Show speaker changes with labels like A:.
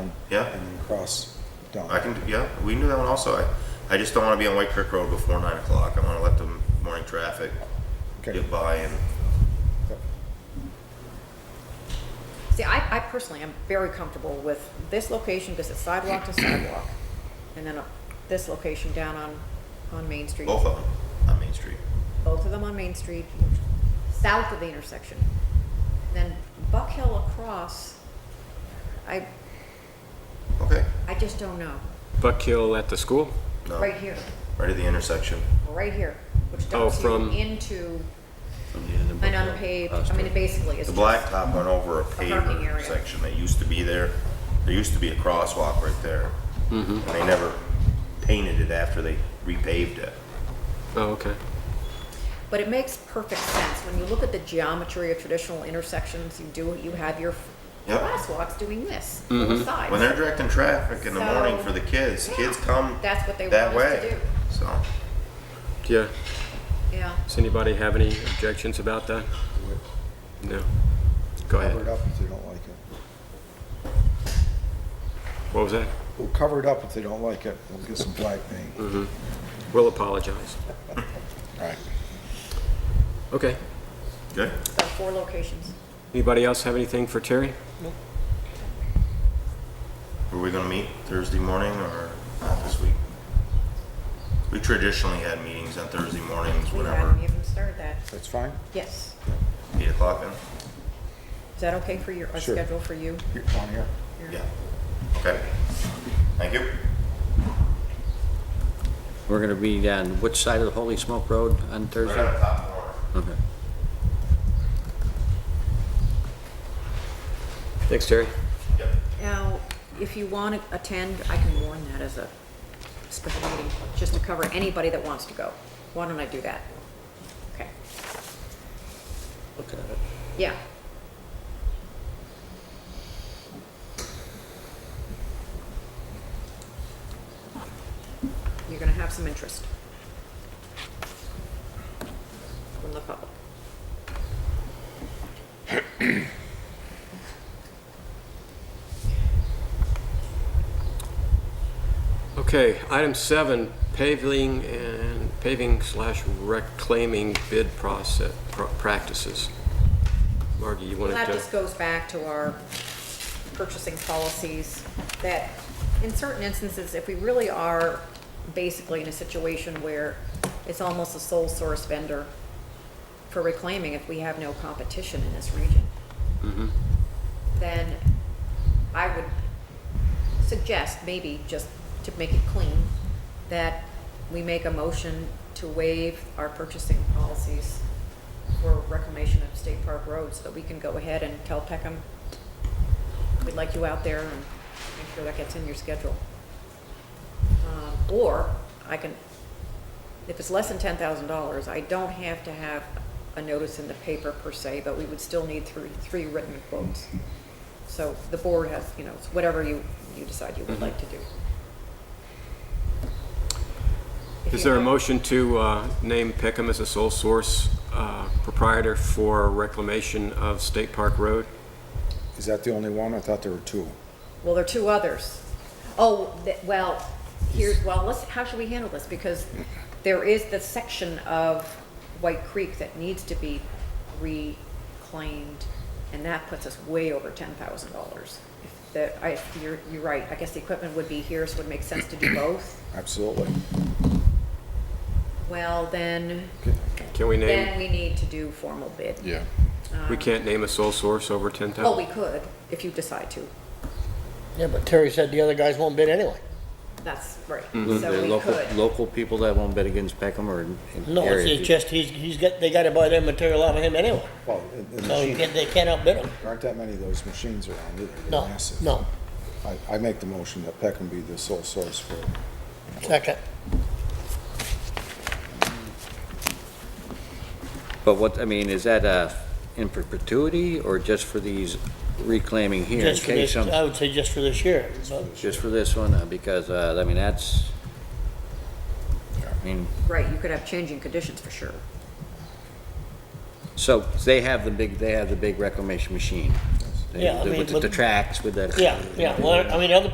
A: Yeah,
B: and then cross down.
A: I can, yeah, we can do that one also. I, I just don't wanna be on White Creek Road before nine o'clock. I wanna let the morning traffic
B: Okay.
A: get by and,
B: Yep.
C: See, I, I personally am very comfortable with this location because it's sidewalk to sidewalk. And then uh, this location down on, on Main Street.
A: both of them on Main Street.
C: Both of them on Main Street, south of the intersection. Then Buck Hill across, I,
A: Okay,
C: I just don't know.
D: Buck Hill at the school?
A: no,
C: Right
A: right
C: here,
A: at the intersection.
C: right here, which
D: Oh,
C: dumps you
D: from-
C: into
E: Yeah, the
C: an
E: book-
C: unpaved,
E: uh,
C: I mean, it basically is
A: The
C: just.
A: blacktop went over a
C: parking
A: paver
C: area.
A: section that used to be there. There used to be a crosswalk right there. And they never painted it after they repaved it.
D: Oh, okay.
C: But it makes perfect sense. When you look at the geometry of traditional intersections, you do, you have your
A: Yep. Mm-hmm.
C: crosswalks doing this, both sides.
A: When they're directing traffic in the morning
C: So-
A: for the kids,
C: Yeah.
A: kids come
C: That's what they
A: that
C: want us to
A: way.
C: do.
A: So,
D: Yeah.
C: Yeah,
D: Does anybody have any objections about that? No. Go
B: Cover it
D: ahead.
B: up if they don't like it.
D: What was that?
B: We'll cover it up if they don't like it. We'll get some black
A: Mm.
B: paint.
D: We'll apologize.
B: Right.
D: Okay.
A: good.
C: so four locations.
D: Anybody else have anything for Terry?
A: Were we gonna meet Thursday morning or not this week? We traditionally had meetings on Thursday mornings,
C: We haven't
A: whenever,
C: even started that.
B: That's fine?
C: Yes.
A: eight o'clock then?
C: Is that okay for your, our
B: Sure.
C: schedule for you?
B: Here, On here.
A: Yeah. Okay. Thank you.
E: We're gonna be on which side of the Holy Smoke Road on
A: Right on
E: Thursday?
A: top corner.
E: Okay.
D: Thanks, Terry.
A: Yep.
C: Now, if you want to attend, I can warn that as a special meeting, just to cover anybody that wants to go. Why don't I do that? Okay,
E: Look at it.
C: yeah. You're going to have some interest from the public.
D: Okay, item seven, paving and paving slash reclaiming bid process, pr- practices. Margie, you wanted
C: Well, that
D: to?
C: just goes back to our purchasing policies, that in certain instances, if we really are basically in a situation where it's almost a sole source vendor for reclaiming, if we have no competition in this region,
D: Mm-hmm.
C: then I would suggest, maybe just to make it clean, that we make a motion to waive our purchasing policies for reclamation of State Park Road so that we can go ahead and tell Peckham, we'd like you out there and make sure that gets in your schedule. Um, Or I can, if it's less than ten thousand dollars, I don't have to have a notice in the paper per se, but we would still need three, three written quotes. So the board has, you know, it's whatever you, you decide you would
D: Mm-hmm.
C: like to do. If
D: Is
C: you
D: there a
C: have-
D: motion to uh, name Peckham as a sole source uh, proprietor for reclamation of State Park Road?
B: Is that the only one? I thought there were two.
C: Well, there are two others. Oh, th- well, here's, well, let's, how should we handle this? Because there is the section of White Creek that needs to be reclaimed, and that puts us way over ten thousand dollars. That, I, you're, you're right, I guess the equipment would be here, so it would make sense to do both.
B: Absolutely.
C: Well, then,
D: Can we
C: then
D: name,
C: we need to do formal bid.
B: Yeah.
D: we can't name a sole source over 10,000?
C: Oh, we could, if you decide to.
F: Yeah, but Terry said the other guys won't bid anyway.
C: That's right,
E: The
C: so we
E: Mm-hmm. local,
C: could.
E: local people that won't bet against Peckham or in in
F: No,
E: area
F: it's, it's
E: people?
F: just, he's, he's got, they gotta buy their material out of him anyway.
B: Well, and- and
F: So you
B: machine-
F: can't, they can't outbid him.
B: there aren't that many of those machines around either. They're
F: No,
B: massive.
F: no.
B: I, I make the motion that Peckham be the sole source for,
F: Second.
E: But what, I mean, is that uh, in perpetuity or just for these reclaiming here? in
F: Just for
E: case
F: this, uh,
E: some-
F: I would say just for this year. but-
E: Just for this one, uh, because, uh, I mean, that's, I mean,
C: Right, you could have changing conditions for sure.
E: so they have the big, they have the big reclamation machine. They-
F: Yeah, I mean,
E: With the- the
F: but-
E: tracks, with the.
F: Yeah, yeah, well, I mean, other